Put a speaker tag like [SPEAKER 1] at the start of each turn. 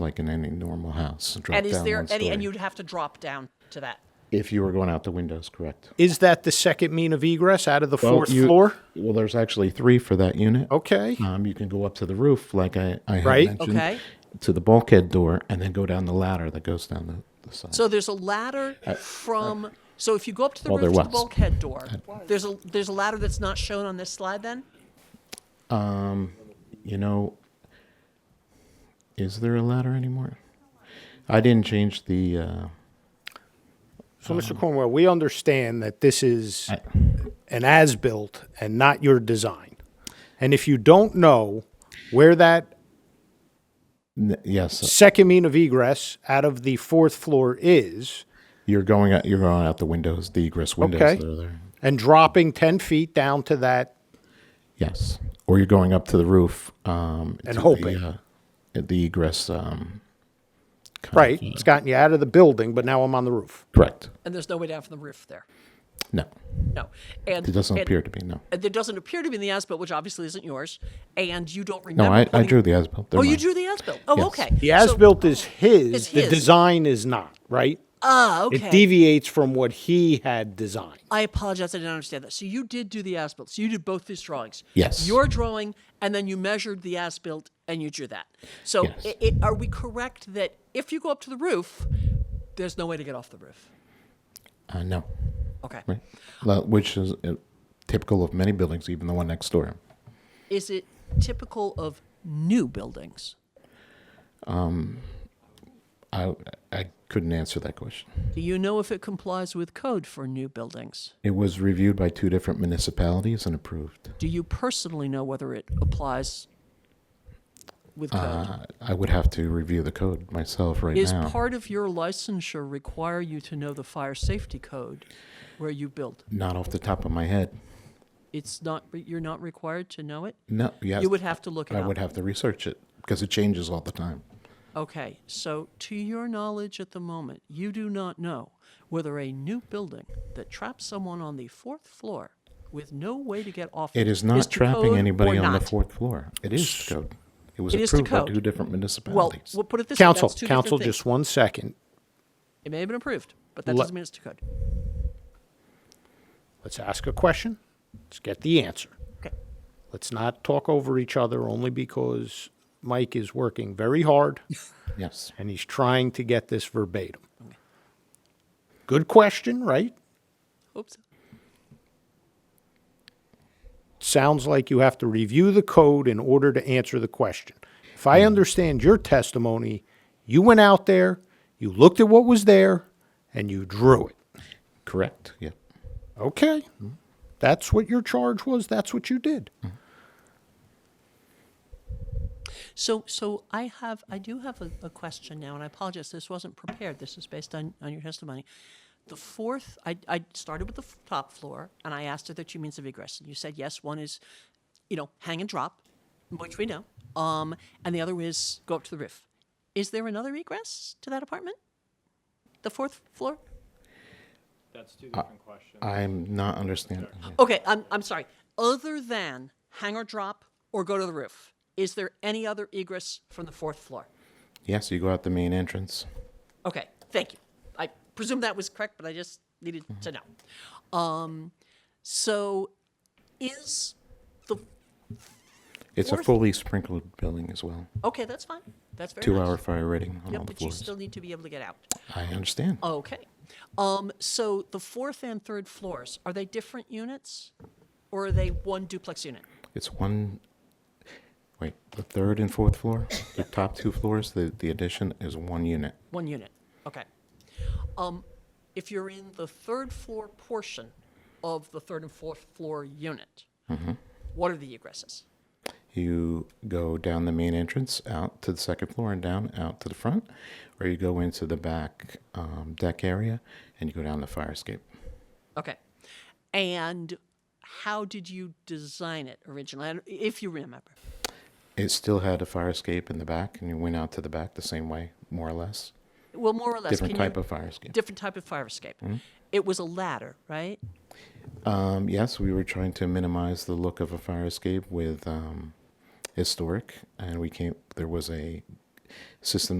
[SPEAKER 1] like in any normal house. Drop
[SPEAKER 2] And is
[SPEAKER 1] down
[SPEAKER 2] there
[SPEAKER 1] one
[SPEAKER 2] any, and
[SPEAKER 1] story.
[SPEAKER 2] you'd have to drop down to that.
[SPEAKER 1] if you were going out the windows, correct?
[SPEAKER 3] Is that the second mean of egress out of the
[SPEAKER 1] Well,
[SPEAKER 3] fourth
[SPEAKER 1] you-
[SPEAKER 3] floor?
[SPEAKER 1] Well, there's actually three for that unit.
[SPEAKER 3] Okay.
[SPEAKER 1] Um, you can go up to the roof, like I, I had
[SPEAKER 3] Right.
[SPEAKER 1] mentioned,
[SPEAKER 2] Okay.
[SPEAKER 1] to the bulkhead door, and then go down the ladder that goes down the, the side.
[SPEAKER 2] So there's a ladder from, so if you go up to the
[SPEAKER 1] Uh, Well, Uh,
[SPEAKER 2] roof
[SPEAKER 1] there
[SPEAKER 2] to the
[SPEAKER 1] was.
[SPEAKER 2] bulkhead door, there's a, there's a ladder that's not shown on this slide then?
[SPEAKER 1] you know, is there a ladder anymore? I didn't change the. Uh,
[SPEAKER 3] So, Mr. Cornwell, we understand that this is
[SPEAKER 1] um, I-
[SPEAKER 3] an as-built and not your design. And if you don't know where that
[SPEAKER 1] n- yes,
[SPEAKER 3] second mean of egress out of the fourth floor is,
[SPEAKER 1] you're going out. You're going out the windows, the egress windows
[SPEAKER 3] Okay.
[SPEAKER 1] that are there.
[SPEAKER 3] and dropping 10 feet down to that,
[SPEAKER 1] Yes, or you're going up to the roof um, to
[SPEAKER 3] hoping.
[SPEAKER 1] the, uh, at the egress. Um, kind of,
[SPEAKER 3] right,
[SPEAKER 1] uh,
[SPEAKER 3] it's gotten you out of the building, but now I'm on the roof.
[SPEAKER 1] correct.
[SPEAKER 2] And there's no way down from the roof there?
[SPEAKER 1] No,
[SPEAKER 2] No. And
[SPEAKER 1] it doesn't
[SPEAKER 2] and-
[SPEAKER 1] appear to be. No,
[SPEAKER 2] and there doesn't appear to be in the as-built, which obviously isn't yours, and you don't
[SPEAKER 1] no.
[SPEAKER 2] remember.
[SPEAKER 1] I, I
[SPEAKER 2] putting-
[SPEAKER 1] drew the as-built.
[SPEAKER 2] Oh, you drew the as-built. Oh,
[SPEAKER 1] Yes.
[SPEAKER 2] okay.
[SPEAKER 3] The
[SPEAKER 2] So-
[SPEAKER 3] as-built is his,
[SPEAKER 2] It's
[SPEAKER 3] the
[SPEAKER 2] his.
[SPEAKER 3] design is not, right?
[SPEAKER 2] Ah,
[SPEAKER 3] It
[SPEAKER 2] okay.
[SPEAKER 3] deviates from what he had designed.
[SPEAKER 2] I apologize. I didn't understand that. So you did do the as-built. So you did both these drawings.
[SPEAKER 1] Yes.
[SPEAKER 2] Your drawing, and then you measured the as-built, and you drew that. So
[SPEAKER 1] Yes.
[SPEAKER 2] i it, are we correct that if you go up to the roof, there's no way to get off the roof?
[SPEAKER 1] Uh, no,
[SPEAKER 2] Okay.
[SPEAKER 1] right. Well, Which is uh, typical of many buildings, even the one next door.
[SPEAKER 2] Is it typical of new buildings?
[SPEAKER 1] I I couldn't answer that question.
[SPEAKER 2] Do you know if it complies with code for new buildings?
[SPEAKER 1] It was reviewed by two different municipalities and approved.
[SPEAKER 2] Do you personally know whether it applies with code?
[SPEAKER 1] Uh, I would have to review the code myself right
[SPEAKER 2] Is
[SPEAKER 1] now.
[SPEAKER 2] part of your licensure require you to know the fire safety code where you build?
[SPEAKER 1] Not off the top of my head.
[SPEAKER 2] It's not, you're not required to know it?
[SPEAKER 1] No, yes.
[SPEAKER 2] You would have to look it
[SPEAKER 1] I
[SPEAKER 2] up.
[SPEAKER 1] would have to research it because it changes all the time.
[SPEAKER 2] Okay, so to your knowledge at the moment, you do not know whether a new building that traps someone on the fourth floor with no way to get off
[SPEAKER 1] It is not
[SPEAKER 2] to
[SPEAKER 1] trapping
[SPEAKER 2] code
[SPEAKER 1] anybody
[SPEAKER 2] or
[SPEAKER 1] on the
[SPEAKER 2] not.
[SPEAKER 1] fourth floor. It is the code. It was
[SPEAKER 2] It is the
[SPEAKER 1] approved by
[SPEAKER 2] code.
[SPEAKER 1] two different
[SPEAKER 2] Well,
[SPEAKER 1] municipalities.
[SPEAKER 2] we'll put it this way.
[SPEAKER 3] Council,
[SPEAKER 2] that's two different
[SPEAKER 3] council,
[SPEAKER 2] things.
[SPEAKER 3] just one second.
[SPEAKER 2] It may have been approved, but that
[SPEAKER 3] Let-
[SPEAKER 2] doesn't mean it's to code.
[SPEAKER 3] Let's ask a question. Let's get the answer.
[SPEAKER 2] Okay.
[SPEAKER 3] Let's not talk over each other only because Mike is working very hard
[SPEAKER 1] yes.
[SPEAKER 3] and he's trying to get this verbatim. Good question, right?
[SPEAKER 2] Oops.
[SPEAKER 3] Sounds like you have to review the code in order to answer the question. If I understand your testimony, you went out there, you looked at what was there, and you drew it.
[SPEAKER 1] Correct. Yeah.
[SPEAKER 3] Okay. That's what your charge was. That's what you did.
[SPEAKER 2] So, so I have, I do have a, a question now, and I apologize. This wasn't prepared. This is based on, on your testimony. The fourth, I, I started with the f- top floor, and I asked if there are two means of egress, and you said yes. One is, you know, hang and drop, which we know, um, and the other is go up to the roof. Is there another egress to that apartment? The fourth floor?
[SPEAKER 4] That's two different questions.
[SPEAKER 1] I'm not understanding.
[SPEAKER 2] Okay, I'm, I'm sorry. Other than hang or drop or go to the roof, is there any other egress from the fourth floor?
[SPEAKER 1] Yes, you go out the main entrance.
[SPEAKER 2] Okay, thank you. I presume that was correct, but I just needed to know. Um, so is the
[SPEAKER 1] It's a
[SPEAKER 2] Fourth-
[SPEAKER 1] fully sprinkled building as well.
[SPEAKER 2] okay? That's fine. That's very
[SPEAKER 1] Two
[SPEAKER 2] nice.
[SPEAKER 1] hour fire rating on
[SPEAKER 2] Yep,
[SPEAKER 1] all the
[SPEAKER 2] but you
[SPEAKER 1] floors.
[SPEAKER 2] still need to be able to get out.
[SPEAKER 1] I understand.
[SPEAKER 2] Okay. Um, so the fourth and third floors are they different units, or are they one duplex unit?
[SPEAKER 1] It's one. Wait, the third and fourth floor, the top two floors, the, the addition is one unit.
[SPEAKER 2] One unit. Okay. Um, if you're in the third floor portion of the third and fourth floor unit,
[SPEAKER 1] Mm-hmm.
[SPEAKER 2] what are the egresses?
[SPEAKER 1] You go down the main entrance, out to the second floor, and down out to the front, or you go into the back um, deck area and you go down the fire escape.
[SPEAKER 2] Okay. And how did you design it originally, I don't- if you remember?
[SPEAKER 1] It still had a fire escape in the back, and you went out to the back the same way, more or less.
[SPEAKER 2] Well, more or less.
[SPEAKER 1] Different
[SPEAKER 2] can you-
[SPEAKER 1] type of Mm-hmm. fire escape.
[SPEAKER 2] Different type of fire escape. It was a ladder, right?
[SPEAKER 1] Um, yes, we were trying to minimize the look of a fire escape with um, historic, and we came. There was a system